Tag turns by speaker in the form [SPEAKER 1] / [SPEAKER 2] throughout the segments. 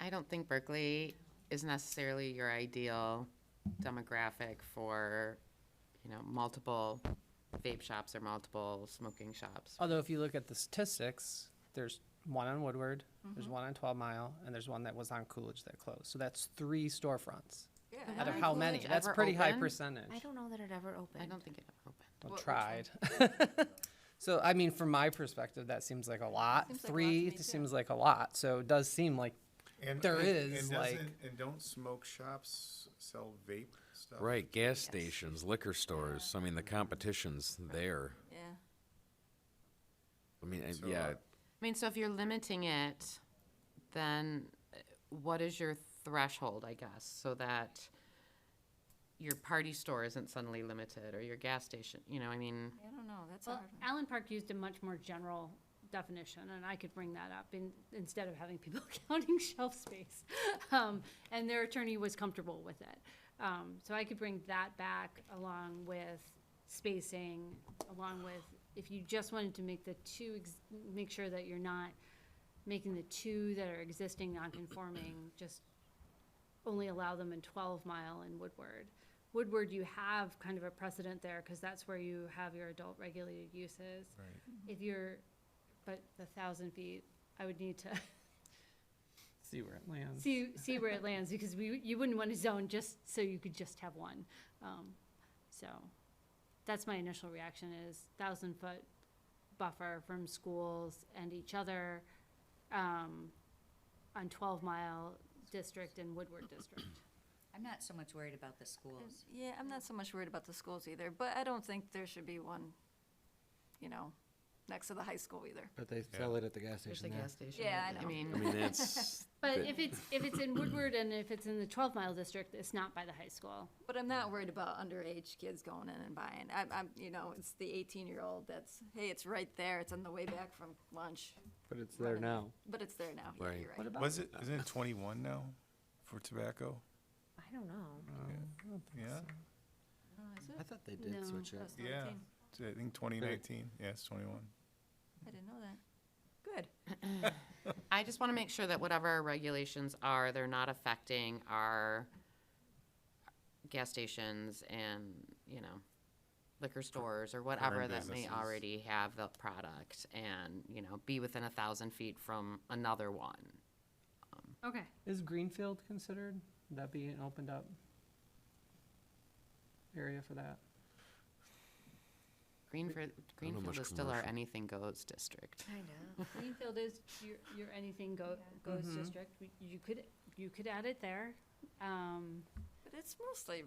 [SPEAKER 1] I don't think Berkeley is necessarily your ideal demographic for, you know, multiple vape shops or multiple smoking shops.
[SPEAKER 2] Although if you look at the statistics, there's one on Woodward, there's
[SPEAKER 3] Mm-hmm.
[SPEAKER 2] one on Twelve Mile, and there's one that was on Coolidge that closed. So that's three storefronts.
[SPEAKER 3] Yeah.
[SPEAKER 2] Out of
[SPEAKER 1] on
[SPEAKER 2] how many?
[SPEAKER 1] Coolidge
[SPEAKER 2] That's
[SPEAKER 1] ever
[SPEAKER 2] pretty high
[SPEAKER 1] opened?
[SPEAKER 2] percentage.
[SPEAKER 3] I don't know that it ever opened.
[SPEAKER 1] I don't think it ever opened.
[SPEAKER 2] Well,
[SPEAKER 3] What- which
[SPEAKER 2] tried. so I mean, from my perspective, that seems like a lot.
[SPEAKER 3] Seems like a lot to
[SPEAKER 2] three
[SPEAKER 3] me, too.
[SPEAKER 2] seems like a lot. So it does seem like
[SPEAKER 4] And
[SPEAKER 2] There
[SPEAKER 4] and-
[SPEAKER 2] is,
[SPEAKER 4] and
[SPEAKER 2] like-
[SPEAKER 4] doesn't- And don't smoke shops sell vape stuff?
[SPEAKER 5] Right, gas stations, liquor stores. I mean, the competition's there.
[SPEAKER 3] Yeah.
[SPEAKER 5] I mean, I-
[SPEAKER 4] So,
[SPEAKER 5] yeah,
[SPEAKER 4] uh,
[SPEAKER 1] I mean, so if you're limiting it, then uh, what is your threshold, I guess, so that your party store isn't suddenly limited or your gas station, you know, I mean,
[SPEAKER 3] I don't know, that's a
[SPEAKER 6] Well,
[SPEAKER 3] hard one.
[SPEAKER 6] Allen Park used a much more general definition, and I could bring that up in, instead of having people counting shelf space. Um, and their attorney was comfortable with it. Um, so I could bring that back along with spacing, along with, if you just wanted to make the two, ex- make sure that you're not making the two that are existing non-conforming, just only allow them in twelve mile and Woodward. Woodward, you have kind of a precedent there, cause that's where you have your adult regulated uses. If you're, but the thousand feet, I would need to
[SPEAKER 2] see where it lands.
[SPEAKER 6] see, see where it lands, because we, you wouldn't wanna zone just so you could just have one. Um, so, that's my initial reaction is thousand foot buffer from schools and each other, um, on twelve mile district and Woodward district.
[SPEAKER 7] I'm not so much worried about the schools.
[SPEAKER 3] Yeah, I'm not so much worried about the schools either, but I don't think there should be one, you know, next to the high school either.
[SPEAKER 8] But they sell it at the gas
[SPEAKER 1] there's a
[SPEAKER 8] station there.
[SPEAKER 1] gas station.
[SPEAKER 3] Yeah, I know.
[SPEAKER 5] I mean, that's.
[SPEAKER 6] But
[SPEAKER 5] that-
[SPEAKER 6] if it's, if it's in Woodward and if it's in the twelve mile district, it's not by the high school.
[SPEAKER 3] But I'm not worried about underage kids going in and buying. I'm, I'm, you know, it's the eighteen-year-old that's, hey, it's right there, it's on the way back from lunch,
[SPEAKER 8] But it's there
[SPEAKER 3] Right.
[SPEAKER 8] now.
[SPEAKER 3] but it's there now. Yeah,
[SPEAKER 5] Right.
[SPEAKER 3] you're
[SPEAKER 8] What about
[SPEAKER 4] Was it, isn't it twenty-one now for tobacco?
[SPEAKER 7] I don't know.
[SPEAKER 4] Yeah,
[SPEAKER 8] I thought they did
[SPEAKER 6] No.
[SPEAKER 8] switch it.
[SPEAKER 3] That's not a
[SPEAKER 4] yeah.
[SPEAKER 3] thing.
[SPEAKER 4] T- I think twenty nineteen, yeah, it's twenty-one.
[SPEAKER 3] I didn't know that. Good.
[SPEAKER 1] I just want to make sure that whatever our regulations are, they're not affecting our gas stations and, you know, liquor stores or whatever that may
[SPEAKER 4] businesses.
[SPEAKER 1] already have the product and, you know, be within a thousand feet from another one.
[SPEAKER 6] Okay.
[SPEAKER 2] Is Greenfield considered? Would that be an opened up area for that?
[SPEAKER 1] Greenfield, Greenfield
[SPEAKER 5] much
[SPEAKER 1] is still our
[SPEAKER 5] commercial.
[SPEAKER 1] anything goes district.
[SPEAKER 7] I know.
[SPEAKER 6] Greenfield is your, your anything go, goes
[SPEAKER 8] Mm-hmm.
[SPEAKER 6] district. We- You could, you could add it there. Um,
[SPEAKER 3] But it's mostly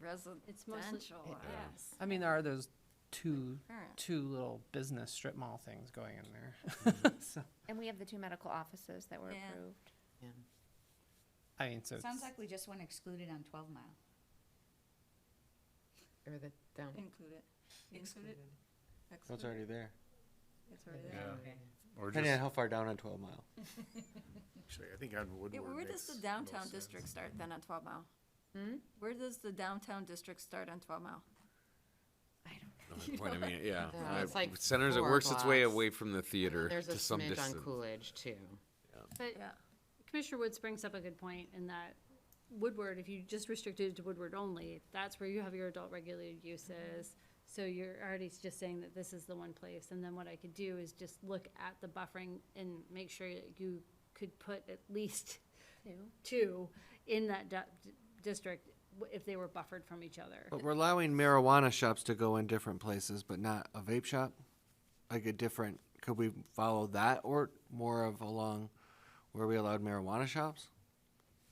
[SPEAKER 6] It's mostly-
[SPEAKER 3] residential, yes.
[SPEAKER 2] I mean, there are those two
[SPEAKER 3] Current.
[SPEAKER 2] two little business strip mall things going in there.
[SPEAKER 8] Mm-hmm.
[SPEAKER 2] so
[SPEAKER 9] And we have the two medical offices that were
[SPEAKER 3] Yeah.
[SPEAKER 9] approved.
[SPEAKER 1] Yeah.
[SPEAKER 2] I mean, so
[SPEAKER 7] Sounds
[SPEAKER 2] Mm. it's-
[SPEAKER 7] like we just want to exclude it on twelve mile.
[SPEAKER 1] Or the down.
[SPEAKER 3] Include it. Include it.
[SPEAKER 8] Well, it's
[SPEAKER 3] Exclude it.
[SPEAKER 8] already there.
[SPEAKER 3] It's already there.
[SPEAKER 4] Yeah. Or just,
[SPEAKER 8] Depending on how far down on 12 Mile.
[SPEAKER 4] actually, I think on
[SPEAKER 3] Yeah,
[SPEAKER 4] Woodward.
[SPEAKER 3] where does the
[SPEAKER 4] makes
[SPEAKER 3] downtown
[SPEAKER 4] most sense.
[SPEAKER 3] district start then on twelve mile? Where does the downtown district start on twelve mile?
[SPEAKER 5] that's my Point, I mean, yeah.
[SPEAKER 1] No,
[SPEAKER 5] I-
[SPEAKER 1] it's like
[SPEAKER 5] Centers, it
[SPEAKER 1] four
[SPEAKER 5] works its way
[SPEAKER 1] blocks.
[SPEAKER 5] away from the theater
[SPEAKER 1] There's a
[SPEAKER 5] to some
[SPEAKER 1] smidge on
[SPEAKER 5] distance.
[SPEAKER 1] Coolidge too.
[SPEAKER 6] but Commissioner Woods brings up a good point in that Woodward, if you just restricted it to Woodward only, that's where you have your adult regulated uses. So you're already just saying that this is the one place, and then what I could do is just look at the buffering and make sure that you could put at least two in that du- district w- if they were buffered from each other.
[SPEAKER 8] But we're allowing marijuana shops to go in different places, but not a vape shop? Like a different, could we follow that or more of along where we allowed marijuana shops?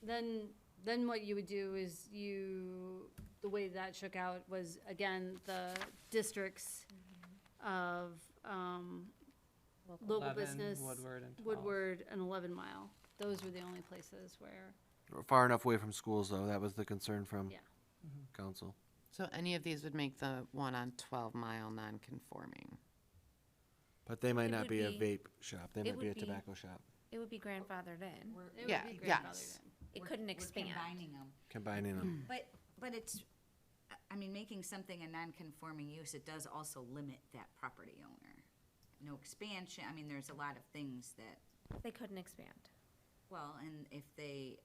[SPEAKER 6] Then, then what you would do is you, the way that shook out was, again, the districts
[SPEAKER 1] Mm-hmm.
[SPEAKER 6] of, um, local
[SPEAKER 2] 11,
[SPEAKER 6] business.
[SPEAKER 2] Woodward, and 12.
[SPEAKER 6] Woodward and eleven mile. Those were the only places where,
[SPEAKER 8] Or Far enough away from schools, though, that was the concern from
[SPEAKER 6] yeah.
[SPEAKER 8] council.
[SPEAKER 1] So any of these would make the one on twelve mile non-conforming.
[SPEAKER 8] But they might
[SPEAKER 9] It
[SPEAKER 8] not
[SPEAKER 9] would
[SPEAKER 8] be a
[SPEAKER 9] be-
[SPEAKER 8] vape shop, they might be
[SPEAKER 9] would
[SPEAKER 8] a
[SPEAKER 9] be-
[SPEAKER 8] tobacco shop,
[SPEAKER 9] It would be grandfathered in.
[SPEAKER 7] We're-
[SPEAKER 6] It would
[SPEAKER 1] Yeah,
[SPEAKER 6] be grandfathered
[SPEAKER 1] yes.
[SPEAKER 6] in.
[SPEAKER 9] It
[SPEAKER 7] we're-
[SPEAKER 9] couldn't
[SPEAKER 7] we're
[SPEAKER 9] expand.
[SPEAKER 7] Combining them.
[SPEAKER 8] combining them.
[SPEAKER 7] But, but it's, I- I mean, making something a non-conforming use, it does also limit that property owner. No expansion, I mean, there's a lot of things that,
[SPEAKER 9] They couldn't expand.
[SPEAKER 7] well, and if they